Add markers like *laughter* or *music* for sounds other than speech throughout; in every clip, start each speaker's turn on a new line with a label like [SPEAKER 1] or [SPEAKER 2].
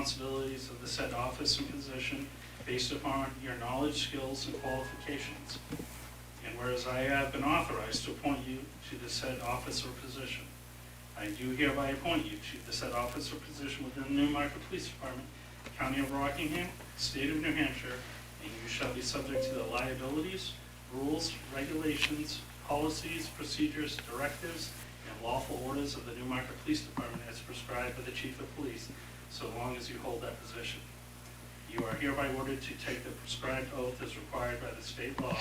[SPEAKER 1] responsibilities of the said office and position based upon your knowledge, skills, and qualifications. And whereas I have been authorized to appoint you to the said office or position, I do hereby appoint you to the said office or position within the Newmarket Police Department, County of Rockingham, State of New Hampshire, and you shall be subject to the liabilities, rules, regulations, policies, procedures, directives, and lawful orders of the Newmarket Police Department as prescribed by the Chief of Police so long as you hold that position. You are hereby ordered to take the prescribed oath as required by the state law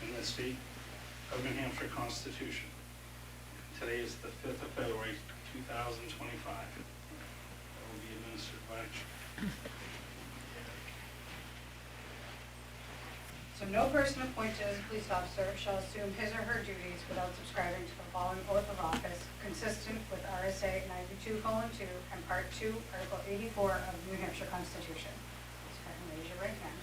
[SPEAKER 1] and the state of New Hampshire Constitution. Today is the 5th of February, 2025. That will be administered by
[SPEAKER 2] So no person appointed as a police officer shall assume his or her duties without subscribing to the following oath of office consistent with RSA ninety-two two and part two, article eighty-four of the New Hampshire Constitution. So I can raise your right hand.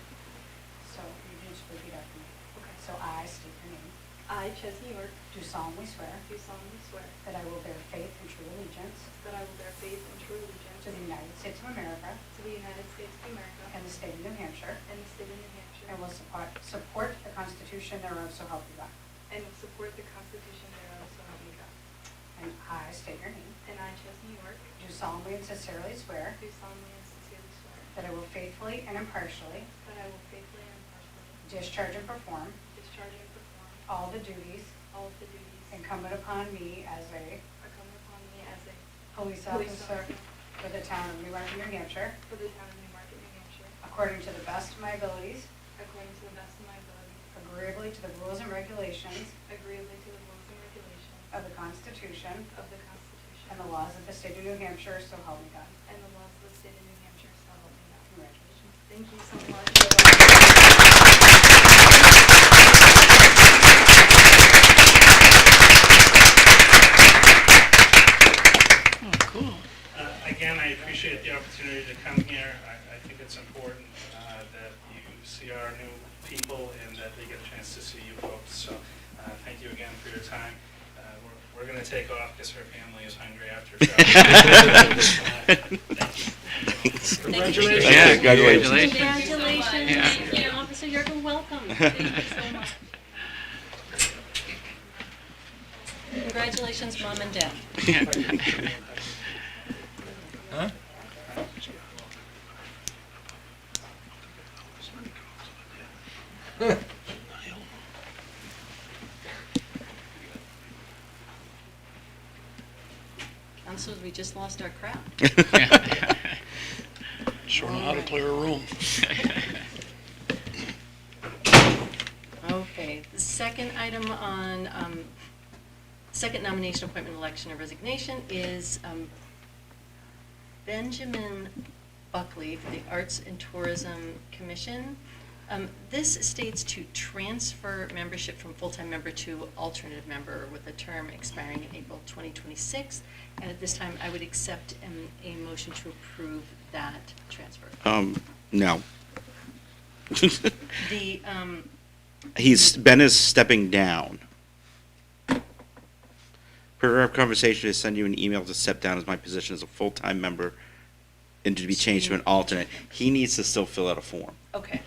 [SPEAKER 2] So you can just repeat after me. Okay, so I state your name.
[SPEAKER 3] I, Chesney York,
[SPEAKER 2] Do solemnly swear
[SPEAKER 3] do solemnly swear
[SPEAKER 2] that I will bear faith and true allegiance
[SPEAKER 3] that I will bear faith and true allegiance
[SPEAKER 2] to the United States of America
[SPEAKER 3] to the United States of America
[SPEAKER 2] and the state of New Hampshire
[SPEAKER 3] and the state of New Hampshire,
[SPEAKER 2] and will support, support the Constitution thereof, so help me God.
[SPEAKER 3] and will support the Constitution thereof, so help me God.
[SPEAKER 2] And I state your name.
[SPEAKER 3] And I, Chesney York,
[SPEAKER 2] Do solemnly and sincerely swear
[SPEAKER 3] do solemnly and sincerely swear
[SPEAKER 2] that I will faithfully and impartially
[SPEAKER 3] that I will faithfully and impartially
[SPEAKER 2] discharge and perform
[SPEAKER 3] discharge and perform
[SPEAKER 2] all the duties
[SPEAKER 3] all of the duties
[SPEAKER 2] incumbent upon me as a
[SPEAKER 3] incumbent upon me as a
[SPEAKER 2] police officer for the town of Newmarket, New Hampshire,
[SPEAKER 3] for the town of Newmarket, New Hampshire,
[SPEAKER 2] according to the best of my abilities,
[SPEAKER 3] according to the best of my ability,
[SPEAKER 2] agreeably to the rules and regulations
[SPEAKER 3] agreeably to the rules and regulations
[SPEAKER 2] of the Constitution
[SPEAKER 3] of the Constitution
[SPEAKER 2] and the laws of the state of New Hampshire, so help me God.
[SPEAKER 3] and the laws of the state of New Hampshire, so help me God.
[SPEAKER 2] Congratulations.
[SPEAKER 3] Thank you so much.
[SPEAKER 1] Uh, Again, I appreciate the opportunity to come here. I, I think it's important uh, that you see our new people and that they get a chance to see you folks. So uh, thank you again for your time. Uh, we're- We're going to take off because her family is hungry after. *laughs* uh,
[SPEAKER 4] Congratulations.
[SPEAKER 5] Yeah, congratulations.
[SPEAKER 6] Congratulations,
[SPEAKER 4] Yeah.
[SPEAKER 6] thank you, Officer Yerkel,
[SPEAKER 4] *laughs*
[SPEAKER 6] welcome, thank you so much. Congratulations, mom and dad. *laughs* Counselors, we just lost our crowd.
[SPEAKER 4] Sure know how to clear a room.
[SPEAKER 6] Okay, the second item on, um, second nomination, appointment, election, or resignation is um, Benjamin Buckley for the Arts and Tourism Commission. Um, This states to transfer membership from full-time member to alternative member with a term expiring in April 2026. And at this time, I would accept um, a motion to approve that transfer.
[SPEAKER 5] Um, no.
[SPEAKER 6] *laughs* The, um,
[SPEAKER 5] He's, Ben is stepping down. Per our conversation, to send you an email to step down as my position as a full-time member and to be changed to an alternate. He needs to still fill out a form.
[SPEAKER 6] okay.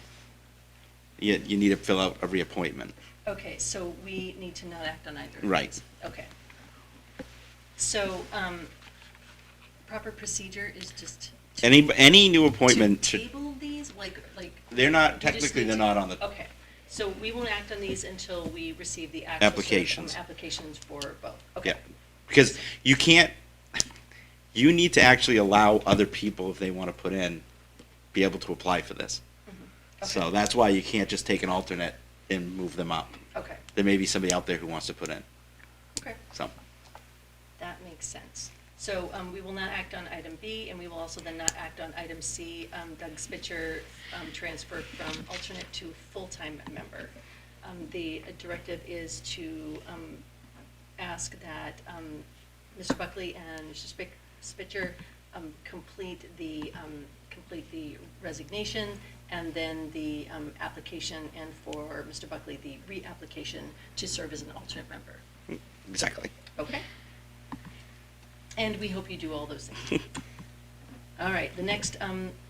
[SPEAKER 5] You, you need to fill out a reappointment.
[SPEAKER 6] Okay, so we need to not act on either of
[SPEAKER 5] Right.
[SPEAKER 6] these. Okay. So, um, proper procedure is just. to-
[SPEAKER 5] Any, any new appointment
[SPEAKER 6] To
[SPEAKER 5] should,
[SPEAKER 6] table these, like, like.
[SPEAKER 5] they're not,
[SPEAKER 6] you just
[SPEAKER 5] technically,
[SPEAKER 6] need
[SPEAKER 5] they're
[SPEAKER 6] to-
[SPEAKER 5] not on the,
[SPEAKER 6] Okay, so we won't act on these until we receive the actual. sort of, um,
[SPEAKER 5] Applications.
[SPEAKER 6] Applications for both, okay.
[SPEAKER 5] yeah. Because you can't, you need to actually allow other people, if they want to put in, be able to apply for this.
[SPEAKER 6] Okay,
[SPEAKER 5] So that's why you can't just take an alternate and move them up.
[SPEAKER 6] Okay,
[SPEAKER 5] There may be somebody out there who wants to put in,
[SPEAKER 6] okay,
[SPEAKER 5] so.
[SPEAKER 6] that makes sense. So, um, we will not act on item B, and we will also then not act on item C, um, Doug Spitzer, um, transfer from alternate to full-time member. Um, The directive is to um, ask that um, Mr. Buckley and Mr. Spic- Spitzer um, complete the, um, complete the resignation and then the um, application, and for Mr. Buckley, the reapplication to serve as an alternate member.
[SPEAKER 5] Exactly. *laughs* *laughs*
[SPEAKER 6] Okay? And we hope you do all those things. All right, the next um,